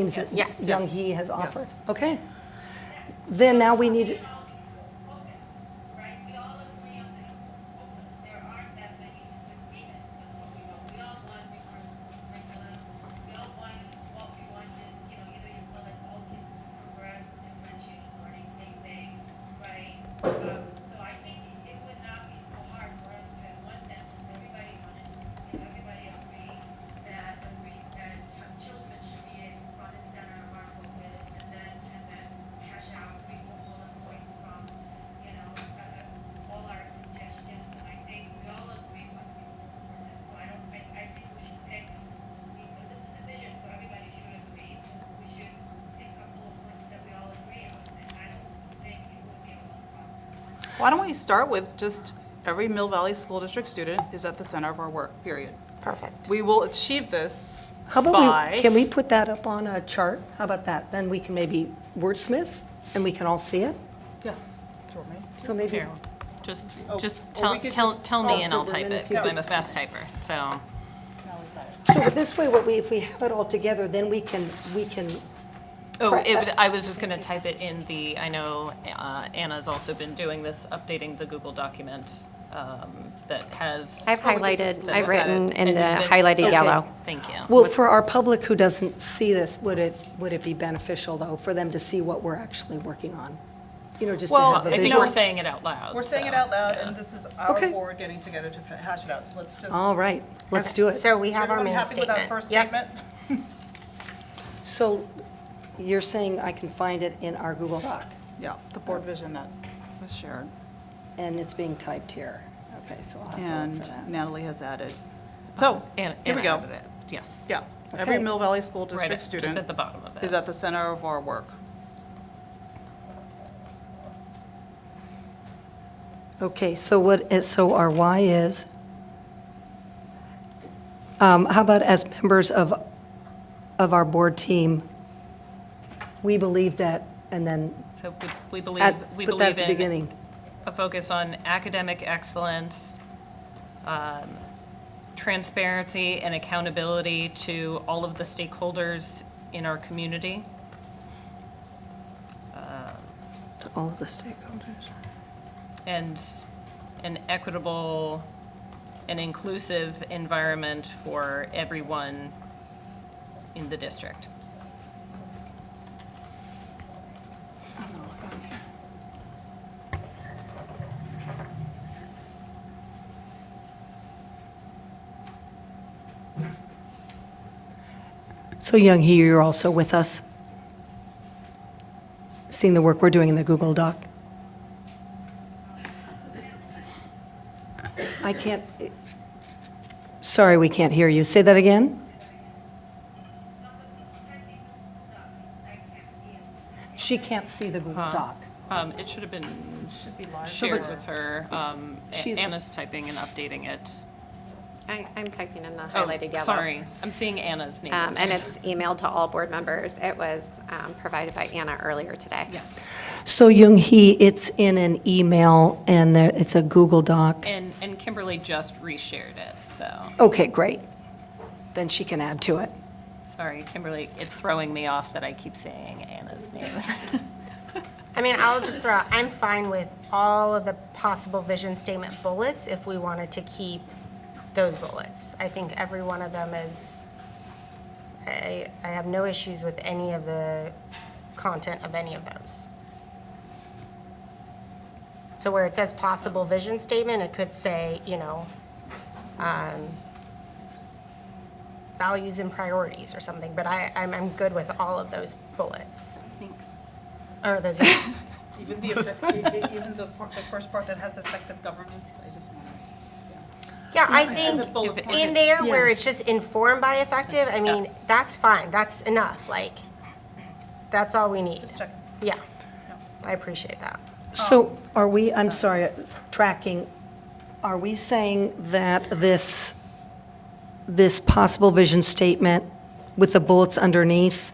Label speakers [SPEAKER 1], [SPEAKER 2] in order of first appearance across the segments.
[SPEAKER 1] Teams that
[SPEAKER 2] Yes.
[SPEAKER 1] Young
[SPEAKER 2] Yes.
[SPEAKER 1] He has offered.
[SPEAKER 2] Yes.
[SPEAKER 1] Okay. Then now we need,
[SPEAKER 3] right? We all agree on that. There aren't that many agreements. You know, we all want different curriculum. We all want, what we want is, you know, either you want like all kids to progress, differentiated learning, same thing, right? Um, so I think it would not be so hard for us to have one sentence, everybody wants it, and everybody agree that, agree that ch- children should be in front and center of our focus, and then, and then hash out frequent bullet points from, you know, uh, all our suggestions, and I think we all agree what's important for this, so I don't, I, I think we should pick, we- but this is a vision, so everybody should agree, we should pick a couple of words that we all agree on, and I don't think it would be a long process.
[SPEAKER 4] Why don't we start with just every Mill Valley School District student is at the center of our work, period.
[SPEAKER 2] Perfect.
[SPEAKER 4] We will achieve this
[SPEAKER 1] how about
[SPEAKER 4] by.
[SPEAKER 1] we, can we put that up on a chart? How about that? Then we can maybe wordsmith and we can all see it.
[SPEAKER 4] Yes.
[SPEAKER 1] So maybe,
[SPEAKER 5] Just,
[SPEAKER 4] Oh, or
[SPEAKER 5] just
[SPEAKER 4] we
[SPEAKER 5] tell,
[SPEAKER 4] could
[SPEAKER 5] tell,
[SPEAKER 4] just-
[SPEAKER 5] tell
[SPEAKER 1] oh,
[SPEAKER 5] me and I'll
[SPEAKER 1] good,
[SPEAKER 5] type
[SPEAKER 1] then
[SPEAKER 5] it,
[SPEAKER 1] if you
[SPEAKER 5] because
[SPEAKER 1] do-
[SPEAKER 5] I'm a fast typer, so.
[SPEAKER 1] so this way, what we, if we have it all together, then we can, we can,
[SPEAKER 5] Oh,
[SPEAKER 1] Correct.
[SPEAKER 5] it, would- I was just gonna type it in the, I know uh, Anna's also been doing this, updating the Google document um, that has.
[SPEAKER 6] I've
[SPEAKER 4] Well, we could just
[SPEAKER 6] highlighted,
[SPEAKER 4] look
[SPEAKER 6] I've
[SPEAKER 4] at it
[SPEAKER 6] written
[SPEAKER 5] and
[SPEAKER 6] in the
[SPEAKER 5] then-
[SPEAKER 6] highlighted
[SPEAKER 5] Okay.
[SPEAKER 6] yellow.
[SPEAKER 5] Thank you.
[SPEAKER 1] well, for our public who doesn't see this, would it, would it be beneficial though, for them to see what we're actually working on? You know, just to
[SPEAKER 4] Well,
[SPEAKER 1] have a
[SPEAKER 5] I think
[SPEAKER 1] visual.
[SPEAKER 5] we're saying it out loud.
[SPEAKER 4] We're saying it
[SPEAKER 5] so,
[SPEAKER 4] out loud,
[SPEAKER 5] yeah.
[SPEAKER 4] and this is our
[SPEAKER 1] Okay.
[SPEAKER 4] board getting together to fa- hash it out, so let's just.
[SPEAKER 1] All right, let's do it.
[SPEAKER 2] So we
[SPEAKER 4] Is
[SPEAKER 2] have our
[SPEAKER 4] everyone
[SPEAKER 2] main
[SPEAKER 4] happy with
[SPEAKER 2] statement.
[SPEAKER 4] our first
[SPEAKER 2] Yep.
[SPEAKER 4] statement?
[SPEAKER 1] So you're saying I can find it in our Google Doc?
[SPEAKER 4] Yeah, the board vision that was shared.
[SPEAKER 1] And it's being typed here. Okay, so I'll have to look
[SPEAKER 4] And
[SPEAKER 1] for that.
[SPEAKER 4] Natalie has added. So,
[SPEAKER 5] And,
[SPEAKER 4] here we
[SPEAKER 5] and
[SPEAKER 4] go.
[SPEAKER 5] added it, yes.
[SPEAKER 4] Yeah, every
[SPEAKER 1] Okay.
[SPEAKER 4] Mill Valley School
[SPEAKER 5] Right,
[SPEAKER 4] District
[SPEAKER 5] at- just at
[SPEAKER 4] student
[SPEAKER 5] the bottom of it.
[SPEAKER 4] is at the center of our work.
[SPEAKER 1] Okay, so what is, so our why is, um, how about as members of, of our board team, we believe that, and then
[SPEAKER 5] So we- we believe,
[SPEAKER 1] at-
[SPEAKER 5] we
[SPEAKER 1] put that at
[SPEAKER 5] believe
[SPEAKER 1] the
[SPEAKER 5] in
[SPEAKER 1] beginning.
[SPEAKER 5] a focus on academic excellence, um, transparency and accountability to all of the stakeholders in our community.
[SPEAKER 1] To all of the stakeholders.
[SPEAKER 5] and an equitable and inclusive environment for everyone in the district.
[SPEAKER 1] So Young He, you're also with us, seeing the work we're doing in the Google Doc. I can't, sorry, we can't hear you. Say that again? She can't see the Google Doc.
[SPEAKER 5] Um, It should have been shared with her. Um, A-
[SPEAKER 1] She's-
[SPEAKER 5] Anna's typing and updating it.
[SPEAKER 6] I, I'm typing in the
[SPEAKER 5] Oh,
[SPEAKER 6] highlighted yellow.
[SPEAKER 5] Sorry, I'm seeing Anna's name.
[SPEAKER 6] Um, and it's emailed to all board members. It was, um, provided by Anna earlier today.
[SPEAKER 5] Yes.
[SPEAKER 1] So Young He, it's in an email and there, it's a Google Doc.
[SPEAKER 5] And, and Kimberly just reshared it, so,
[SPEAKER 1] Okay, great. Then she can add to it.
[SPEAKER 5] sorry, Kimberly, it's throwing me off that I keep saying Anna's name.
[SPEAKER 2] I mean, I'll just throw out, I'm fine with all of the possible vision statement bullets if we wanted to keep those bullets. I think every one of them is, I, I have no issues with any of the content of any of those. So where it says possible vision statement, it could say, you know, um, values and priorities or something, but I, I'm, I'm good with all of those bullets.
[SPEAKER 5] Thanks.
[SPEAKER 2] Or those,
[SPEAKER 4] Even the, effect- e-, even the part- the first part that has effective governance, I just want to.
[SPEAKER 2] yeah, I
[SPEAKER 4] As a
[SPEAKER 2] think
[SPEAKER 4] bullet point.
[SPEAKER 2] in there where it's just informed by effective, I mean, that's fine, that's enough, like, that's all we need.
[SPEAKER 4] Just check.
[SPEAKER 2] Yeah, I appreciate that.
[SPEAKER 1] So are we, I'm sorry, tracking, are we saying that this, this possible vision statement with the bullets underneath,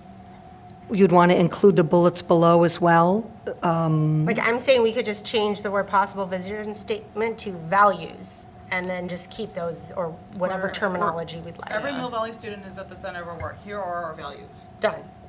[SPEAKER 1] you'd want to include the bullets below as well?
[SPEAKER 2] Like, I'm saying we could just change the word possible vision statement to values, and then just keep those, or whatever
[SPEAKER 4] Or- or-
[SPEAKER 2] terminology we'd
[SPEAKER 4] Every
[SPEAKER 2] like.
[SPEAKER 4] Mill Valley student is at the center of our work. Here are our values.
[SPEAKER 2] Done.